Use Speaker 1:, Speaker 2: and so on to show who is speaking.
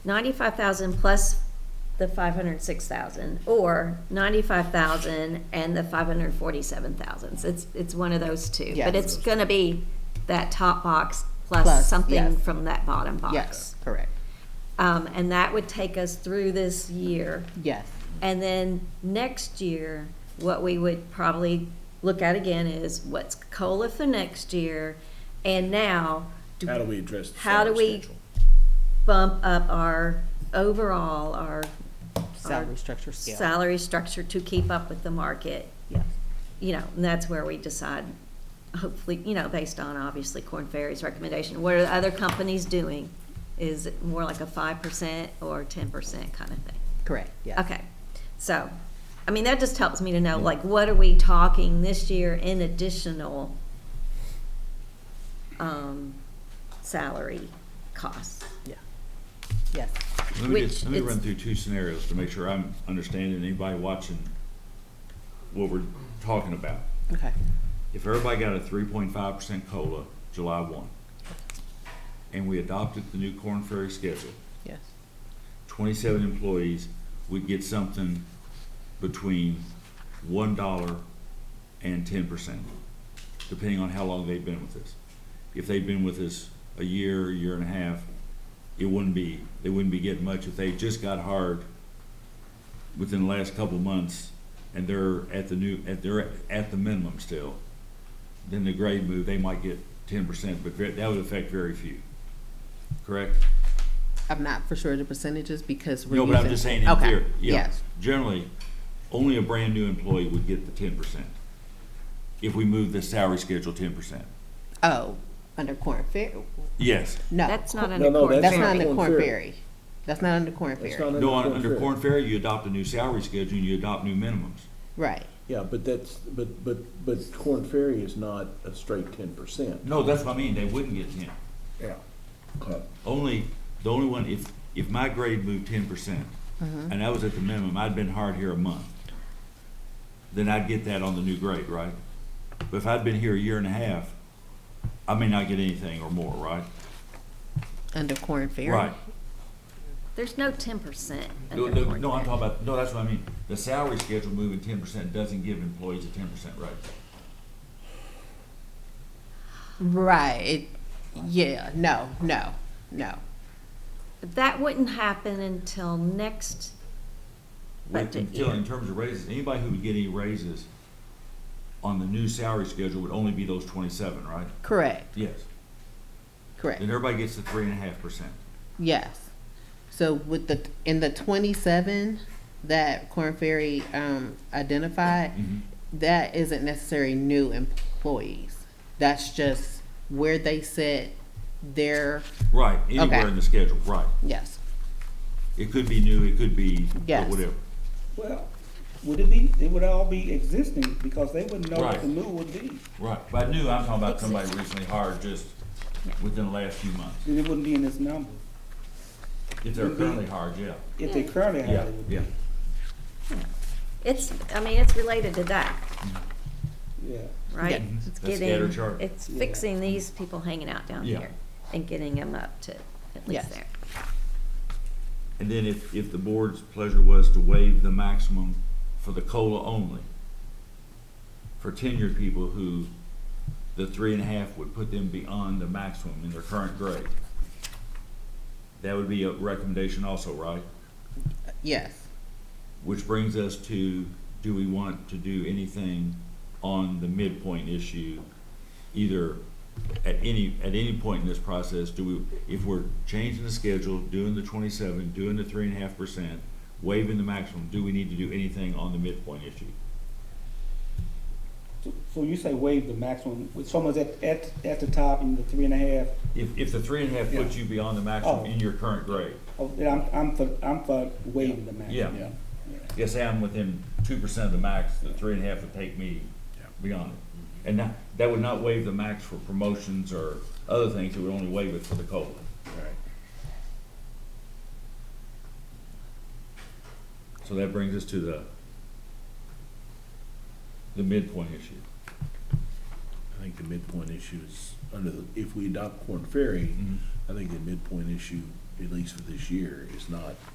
Speaker 1: ninety-five thousand plus the five hundred six thousand, or ninety-five thousand and the five hundred forty-seven thousand. So it's, it's one of those two.
Speaker 2: Yes.
Speaker 1: But it's gonna be that top box plus
Speaker 2: Plus,
Speaker 1: something
Speaker 2: yes.
Speaker 1: from that bottom box.
Speaker 2: Yes, correct.
Speaker 1: Um, and that would take us through this year.
Speaker 2: Yes,
Speaker 1: And then next year, what we would probably look at again is what's COLA for next year? And now, do-
Speaker 3: How do we address the
Speaker 1: How do
Speaker 3: salary
Speaker 1: we-
Speaker 3: schedule?
Speaker 1: bump up our overall, our
Speaker 2: salary structure scale.
Speaker 1: salary structure to keep up with the market?
Speaker 2: Yes,
Speaker 1: You know, and that's where we decide, hopefully, you know, based on obviously Corn Ferry's recommendation, what are the other companies doing? Is it more like a five percent or ten percent kind of thing?
Speaker 2: correct, yes.
Speaker 1: Okay, so, I mean, that just helps me to know, like, what are we talking this year in additional um, salary costs?
Speaker 2: Yeah. Yes,
Speaker 4: Let me,
Speaker 1: Which
Speaker 4: get- let me
Speaker 1: it's-
Speaker 4: run through two scenarios to make sure I'm understanding anybody watching what we're talking about.
Speaker 2: okay,
Speaker 4: If everybody got a three point five percent COLA July one, and we adopted the new corn ferry schedule,
Speaker 2: yes,
Speaker 4: twenty-seven employees would get something between one dollar and ten percent, depending on how long they've been with us. If they've been with us a year, year and a half, it wouldn't be, they wouldn't be getting much. If they just got hired within the last couple of months and they're at the new, at, they're at the minimum still, then the grade move, they might get ten percent, but ve- that would affect very few, correct?
Speaker 2: I'm not for sure the percentages because we're
Speaker 4: No,
Speaker 2: using.
Speaker 4: but I'm just saying in
Speaker 2: Okay,
Speaker 4: theory, yeah.
Speaker 2: Yes,
Speaker 4: Generally, only a brand-new employee would get the ten percent if we move the salary schedule ten percent.
Speaker 2: oh, under corn fair,
Speaker 4: Yes,
Speaker 2: no.
Speaker 1: That's not
Speaker 2: cor-
Speaker 1: under
Speaker 3: no,
Speaker 1: Corn
Speaker 3: that's
Speaker 2: That's
Speaker 3: not
Speaker 2: not
Speaker 1: Ferry.
Speaker 2: under
Speaker 3: Corn
Speaker 2: corn
Speaker 3: Ferry.
Speaker 2: ferry, that's not under corn
Speaker 3: It's
Speaker 2: ferry,
Speaker 3: not
Speaker 4: no, un-
Speaker 3: Corn
Speaker 4: under
Speaker 3: Ferry.
Speaker 4: Corn Ferry, you adopt a new salary schedule and you adopt new minimums.
Speaker 2: right,
Speaker 3: Yeah, but that's, but, but, but Corn Ferry is not a straight ten percent.
Speaker 4: No, that's what I mean, they wouldn't get ten.
Speaker 3: Yeah.
Speaker 4: Only, the only one, if, if my grade moved ten percent,
Speaker 2: Mm-hmm.
Speaker 4: and I was at the minimum, I'd been hired here a month, then I'd get that on the new grade, right? But if I'd been here a year and a half, I may not get anything or more, right?
Speaker 2: under corn ferry.
Speaker 4: Right.
Speaker 1: There's no ten percent
Speaker 4: No,
Speaker 1: under
Speaker 4: no,
Speaker 1: Corn
Speaker 4: no, I'm
Speaker 1: Ferry.
Speaker 4: talking about, no, that's what I mean. The salary schedule moving ten percent doesn't give employees a ten percent raise.
Speaker 2: Right, it- yeah, no, no, no,
Speaker 1: But That wouldn't happen until next
Speaker 4: With-
Speaker 1: budget
Speaker 4: Until, in
Speaker 1: year.
Speaker 4: terms of raises, anybody who would get any raises on the new salary schedule would only be those twenty-seven, right?
Speaker 2: correct,
Speaker 4: Yes.
Speaker 2: correct,
Speaker 4: Then everybody gets the three and a half percent.
Speaker 2: yes. So with the, in the twenty-seven that corn ferry, um, identified, that isn't necessarily new employees. That's just where they sit, their,
Speaker 4: Right, anywhere
Speaker 2: Okay.
Speaker 4: in the schedule, right.
Speaker 2: yes,
Speaker 4: It could be new, it could be
Speaker 2: Yes.
Speaker 4: whatever.
Speaker 5: Well, would it be, it would all be existing because they wouldn't know what
Speaker 4: Right.
Speaker 5: the new would be.
Speaker 4: Right, but I knew, I'm talking about somebody recently hired just within the last few months.
Speaker 5: Then it wouldn't be in this number.
Speaker 4: If they're currently hired, yeah,
Speaker 5: If they currently
Speaker 4: yeah,
Speaker 5: have it.
Speaker 4: yeah.
Speaker 1: It's, I mean, it's related to that,
Speaker 5: Yeah.
Speaker 1: right?
Speaker 2: Yeah.
Speaker 1: It's
Speaker 4: That's
Speaker 1: getting,
Speaker 4: scatter chart.
Speaker 1: it's
Speaker 5: Yeah.
Speaker 1: fixing these people hanging out down
Speaker 4: Yeah.
Speaker 1: here and getting them up to at
Speaker 2: Yes.
Speaker 1: least there.
Speaker 4: And then if, if the board's pleasure was to waive the maximum for the COLA only, for tenured people who, the three and a half would put them beyond the maximum in their current grade. That would be a recommendation also, right?
Speaker 2: yes.
Speaker 4: Which brings us to, do we want to do anything on the midpoint issue? Either at any, at any point in this process, do we, if we're changing the schedule, doing the twenty-seven, doing the three and a half percent, waiving the maximum, do we need to do anything on the midpoint issue?
Speaker 5: So- So you say waive the maximum, with someone's at, at, at the top and the three and a half,
Speaker 4: If, if the three and a half puts you beyond the maximum in your current grade,
Speaker 5: oh, then I'm, I'm for, I'm for waiving the maximum.
Speaker 4: Yeah. yes, I'm within two percent of the max, the three and a half would take me beyond it. And that, that would not waive the max for promotions or other things, it would only waive it for the COLA. So that brings us to the, the midpoint issue.
Speaker 3: I think the midpoint issue is, under, the if we adopt Corn Ferry, I think the midpoint issue at least for this year, is not